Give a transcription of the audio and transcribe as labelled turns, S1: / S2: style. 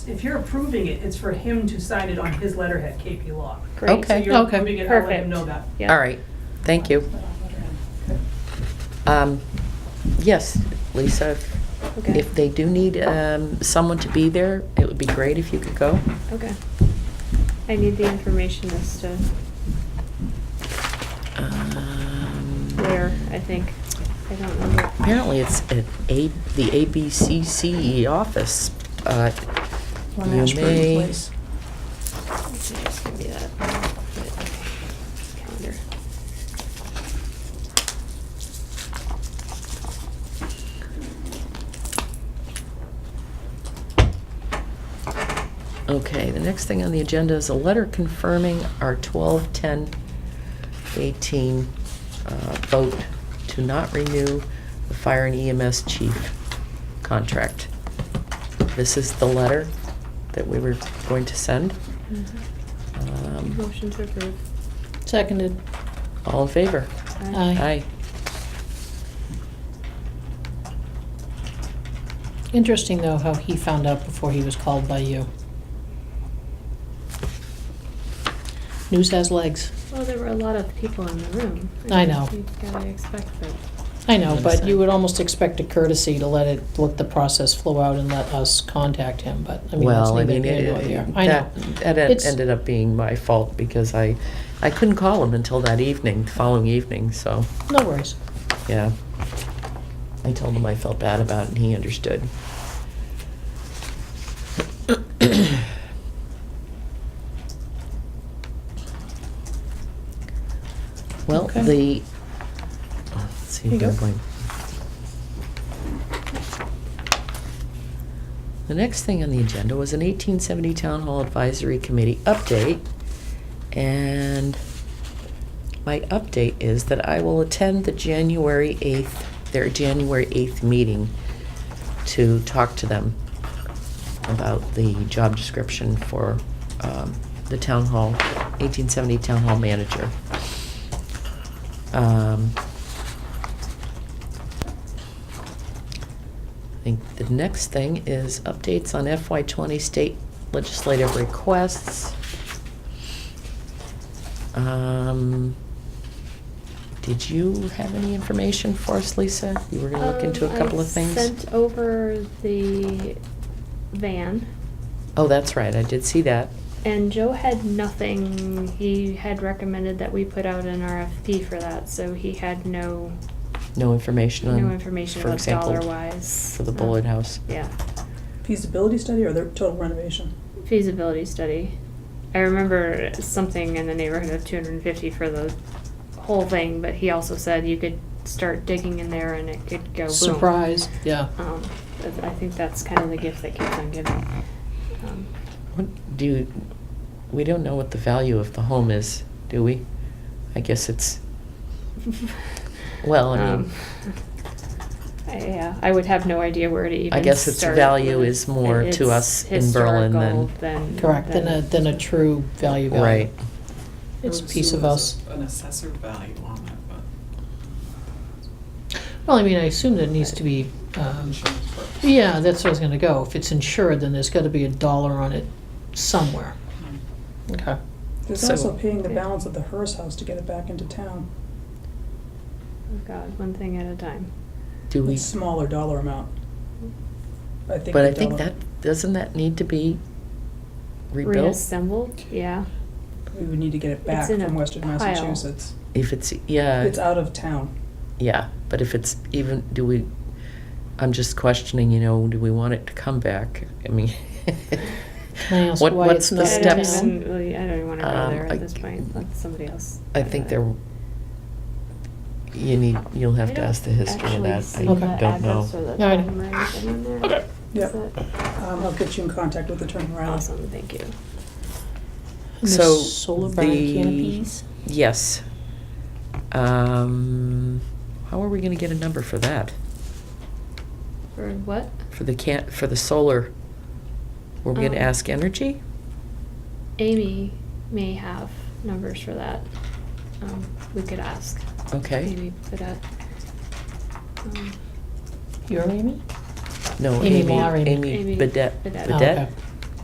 S1: If you're approving it, it's for him to sign it on his letterhead, KP Law.
S2: Great.
S1: So
S3: Okay.
S1: you're
S2: Okay.
S1: approving it, I'll let
S2: Perfect.
S1: him know that.
S2: Yeah.
S3: All right, thank you. Um, Yes, Lisa, if-
S2: Okay.
S3: if they do need um, someone to be there, it would be great if you could go.
S2: Okay. I need the information as to
S3: Um,
S2: where, I think. I don't remember.
S3: Apparently, it's at A- the ABCCE E office. Uh,
S4: On
S3: You
S4: Ashburn
S3: may-
S4: Place.
S2: Let's see, Just give me that. Calendar.
S3: Okay, the next thing on the agenda is a letter confirming our 12-10-18 uh, vote to not renew the fire and EMS chief contract. This is the letter that we were going to send.
S1: Mm-hmm.
S3: Um,
S2: Motion to approve.
S4: Seconded.
S3: All in favor?
S2: Aye.
S3: Aye.
S4: Interesting, though, how he found out before he was called by you. News has legs.
S2: Well, there were a lot of people in the room.
S4: I know.
S2: You gotta expect that.
S4: I know, but you
S3: Understand.
S4: would almost expect a courtesy to let it, let the process flow out and let us contact him, but, I mean, that's
S3: Well, I
S4: neither
S3: mean,
S4: here nor there.
S3: it-
S4: I know.
S3: that, that en-
S4: It's-
S3: ended up being my fault because I, I couldn't call him until that evening, the following evening, so,
S4: No worries.
S3: yeah. I told him I felt bad about it and he understood. Well,
S4: Okay.
S3: the, oh, let's see,
S4: Here you go.
S3: don't blame. The next thing on the agenda was an eighteen seventy Town Hall Advisory Committee update. And my update is that I will attend the January eighth, their January eighth meeting to talk to them about the job description for um, the town hall, 1870 town hall manager. Um, I think the next thing is updates on FY20 state legislative requests. Um, Did you have any information for us, Lisa? You were going to look into
S2: Um,
S3: a
S2: I
S3: couple of things?
S2: Sent over the van,
S3: Oh, that's right, I did see that.
S2: and Joe had nothing. He had recommended that we put out an RFP for that, so he had no
S3: No information on,
S2: no information
S3: for
S2: about
S3: example,
S2: dollar wise
S3: for the bullet house.
S2: Yeah,
S5: feasibility study or the total renovation?
S2: feasibility study. I remember something in the neighborhood of two hundred and fifty for the whole thing, but he also said you could start digging in there and it could go boom.
S4: Surprise,
S3: Oh.
S4: yeah.
S2: Um, but I think that's kind of the gift that keeps on giving. Um,
S3: What do you, we don't know what the value of the home is, do we? I guess it's well, I mean,
S2: Um, I- Yeah, I would have no idea where to even start.
S3: guess its value is more
S2: It-
S3: to
S2: it's
S3: us in Berlin than-
S2: historical than.
S4: Correct, than a, than a true value value.
S3: right.
S4: It's a
S6: Herb
S4: piece of
S6: Sewell
S4: us.
S6: has a- An assessor value on it, but
S4: Well, I mean, I assume that it needs to be, um,
S6: insurance purposes.
S4: yeah, that's where I was gonna go. If it's insured, then there's gotta be a dollar on it somewhere.
S6: Hmm.
S4: Okay.
S5: There's
S3: So-
S5: also paying the balance of the Hearst house to get it back into town.
S2: Oh, God, one thing at a time.
S3: Do we?
S5: It's smaller dollar amount. I think.
S3: But
S5: the
S3: I think
S5: dollar-
S3: that doesn't that need to be rebuilt
S2: Reassembled, yeah.
S5: We would need to get it back
S2: It's in
S5: from
S2: a
S5: Western
S2: pile.
S5: Massachusetts.
S3: if it's yeah
S5: It's out of town.
S3: yeah. But if it's even do we? I'm just questioning. You know, do we want it to come back? I mean,
S4: Can I ask
S3: what
S4: why
S3: what's
S4: it's
S3: the
S4: not
S2: I don't
S3: steps?
S4: down?
S2: even really- I don't even wanna
S3: Um,
S2: go there
S3: I-
S2: at this point, let somebody else.
S3: I
S2: go
S3: think
S2: there.
S3: there, you need, you'll have
S2: I
S3: to
S2: don't
S3: ask the history of
S2: actually
S3: that.
S2: see
S3: I
S4: Okay.
S2: the
S3: don't
S2: address or
S3: know.
S2: the
S4: No, I know.
S2: time or anything in there.
S5: Yep.
S2: Is it-
S5: Um, I'll get you in contact with Attorney Riley.
S2: Awesome, thank you.
S4: And the
S3: So
S4: solar barn
S3: the-
S4: canopies?
S3: Yes. Um, how are we gonna get a number for that?
S2: For what?
S3: For the can, for the solar? We're gonna
S2: Um,
S3: ask energy?
S2: Amy may have numbers for that. Um, we could ask.
S3: Okay.
S2: Maybe for that. Um,
S4: You're Amy?
S3: No,
S4: Amy
S3: Amy,
S4: Lauren.
S3: Amy
S2: Amy
S3: Bedet,
S2: Bedet.
S4: Oh,
S3: Bedet?
S4: okay.